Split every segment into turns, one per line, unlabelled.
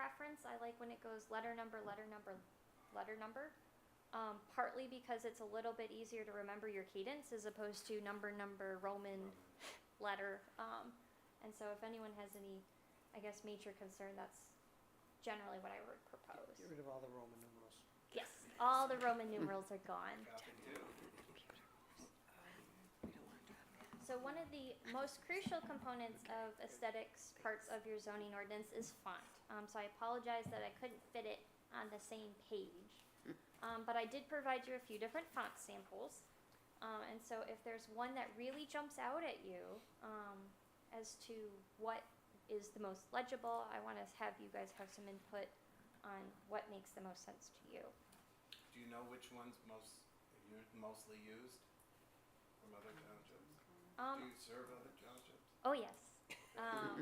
sense. I like when it goes letter number, letter number, letter number. Um, partly because it's a little bit easier to remember your cadence as opposed to number, number, Roman letter. Um, and so if anyone has any, I guess, major concern, that's generally what I would propose.
Get rid of all the Roman numerals.
Yes, all the Roman numerals are gone. So one of the most crucial components of aesthetics parts of your zoning ordinance is font. Um, so I apologize that I couldn't fit it on the same page. Um, but I did provide you a few different font samples. Um, and so if there's one that really jumps out at you, um, as to what is the most legible, I wanna have you guys have some input on what makes the most sense to you.
Do you know which one's most, u- mostly used from other townships? Do
Um,
you serve other townships?
oh yes. Um,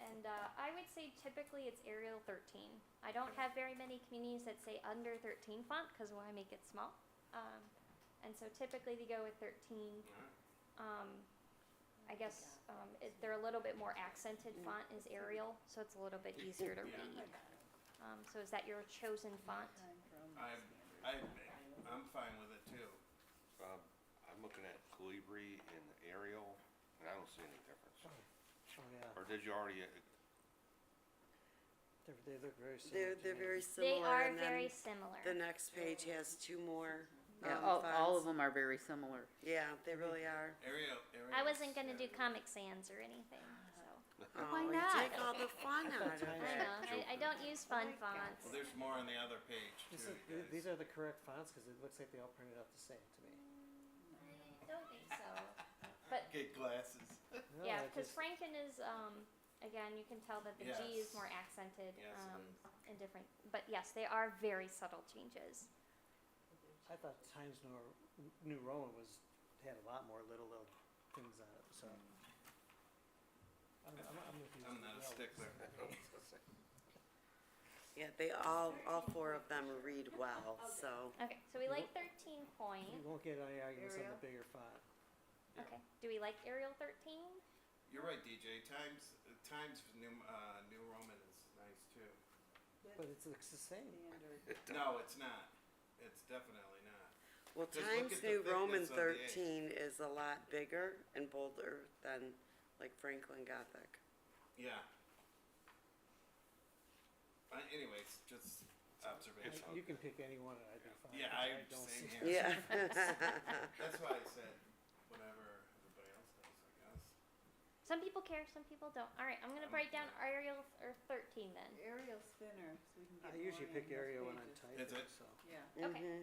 and uh, I would say typically it's Arial 13. I don't have very many communities that say under 13 font because why make it small? Um, and so typically they go with 13.
Alright.
Um, I guess um, it, they're a little bit more accented
Mm.
font is Arial, so it's a little bit easier to
Yeah.
read. Um, so is that your chosen font?
I, I, I'm fine with it too.
Um, I'm looking at Calibri and Arial, and I don't see any difference.
Oh, yeah,
Or did you already, uh,
they're, they look very similar
They're,
to
they're
me.
very
They
similar,
are
and
very
then
similar.
the next page has two more,
Yeah,
um,
all, all of
fonts.
them are very similar.
Yeah, they really are.
Arial, Arial.
I wasn't going to do Comic Sans or anything, so.
Why
not?
Oh, Take all the fun out of
I
it.
know. I, I don't use fun fonts.
Well, there's more on the other page too,
This
you
is, th- these
guys.
are the correct fonts, cause it looks like they all printed out the same to me.
I don't think so.
Get glasses.
No,
yeah,
I
because
just-
Franken is, um, again, you can tell that the G is more accented
Yes, it
um, and different. But yes, they are very subtle changes.
I thought Times New, New Roman was, had a lot more little, little things on it, so. I'm, I'm, I'm with you.
I'm not a
Well,
stickler.
Yeah, they all, all four of them read well, so.
Okay, so we
You
like 13 point.
You won't get any arguments on the bigger font.
Yeah.
Okay, do we like Arial 13?
You're right, DJ. Times, uh, Times New, uh, New Roman is nice too.
But it's, it's the same.
No, it's not. It's definitely not.
Well,
Just look
Times
at the
New Roman
thickness of the egg.
thirteen is a lot bigger and bolder than like Franklin Gothic.
Yeah. Uh, anyways, just observation.
You can pick any one, and I'd be fine.
Yeah,
'cause
I'm
don't
same
see-
here.
Yeah.
That's why I said whatever everybody else does, I guess.
Some people care, some people don't. All right, I'm going to
Um,
write down Arial or 13 then.
Arial spinner, so we can get
I
more
usually pick
in those
area when I'm
pages.
typing,
Is
so.
it?
Yeah.
Okay.
Mhm.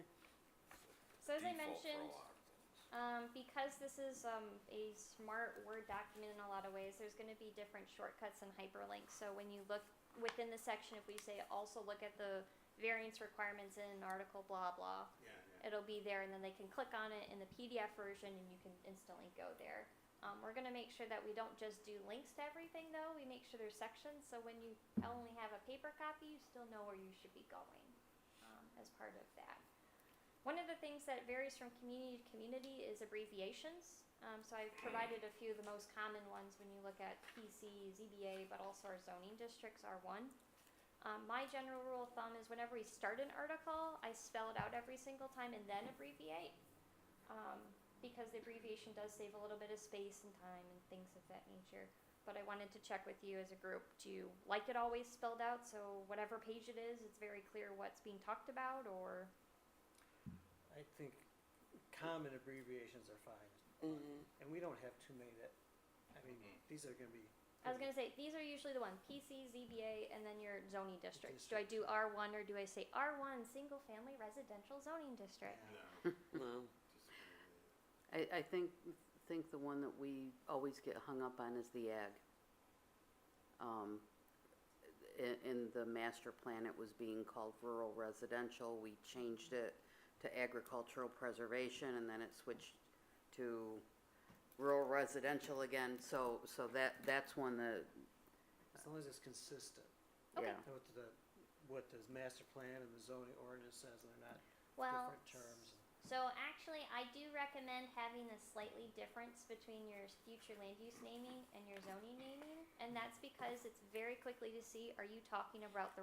So as I
default for a
mentioned,
lot of things?
Um, because this is um, a smart Word document in a lot of ways, there's going to be different shortcuts and hyperlinks. So when you look within the section, if we say also look at the variance requirements in article blah blah,
Yeah, yeah.
it'll be there, and then they can click on it in the PDF version, and you can instantly go there. Um, we're going to make sure that we don't just do links to everything, though. We make sure there's sections, so when you only have a paper copy, you still know where you should be going um, as part of that. One of the things that varies from community to community is abbreviations. Um, so I've provided a few of the most common ones when you look at PC, ZBA, but also our zoning districts, R1. Um, my general rule of thumb is whenever we start an article, I spell it out every single time and then abbreviate. Um, because the abbreviation does save a little bit of space and time and things of that nature. But I wanted to check with you as a group, do you like it always spelled out? So whatever page it is, it's very clear what's being talked about or?
I think common abbreviations are fine,
Mhm.
and we don't have too many that, I mean, these are gonna be.
I was gonna say these are usually the one PC, ZBA, and then your zoning districts. Do I do R one or do I say R one single family residential zoning district?
No,
No.
just really.
I, I think, think the one that we always get hung up on is the ag. Um, in, in the master plan, it was being called rural residential, we changed it to agricultural preservation, and then it switched to rural residential again, so, so that, that's one that,
As long as it's consistent,
Okay.
yeah.
and what the, what the master plan and the zoning ordinance says, and they're not
Well,
different terms.
so actually, I do recommend having a slightly difference between your future land use naming and your zoning naming, and that's because it's very quickly to see: are you talking about the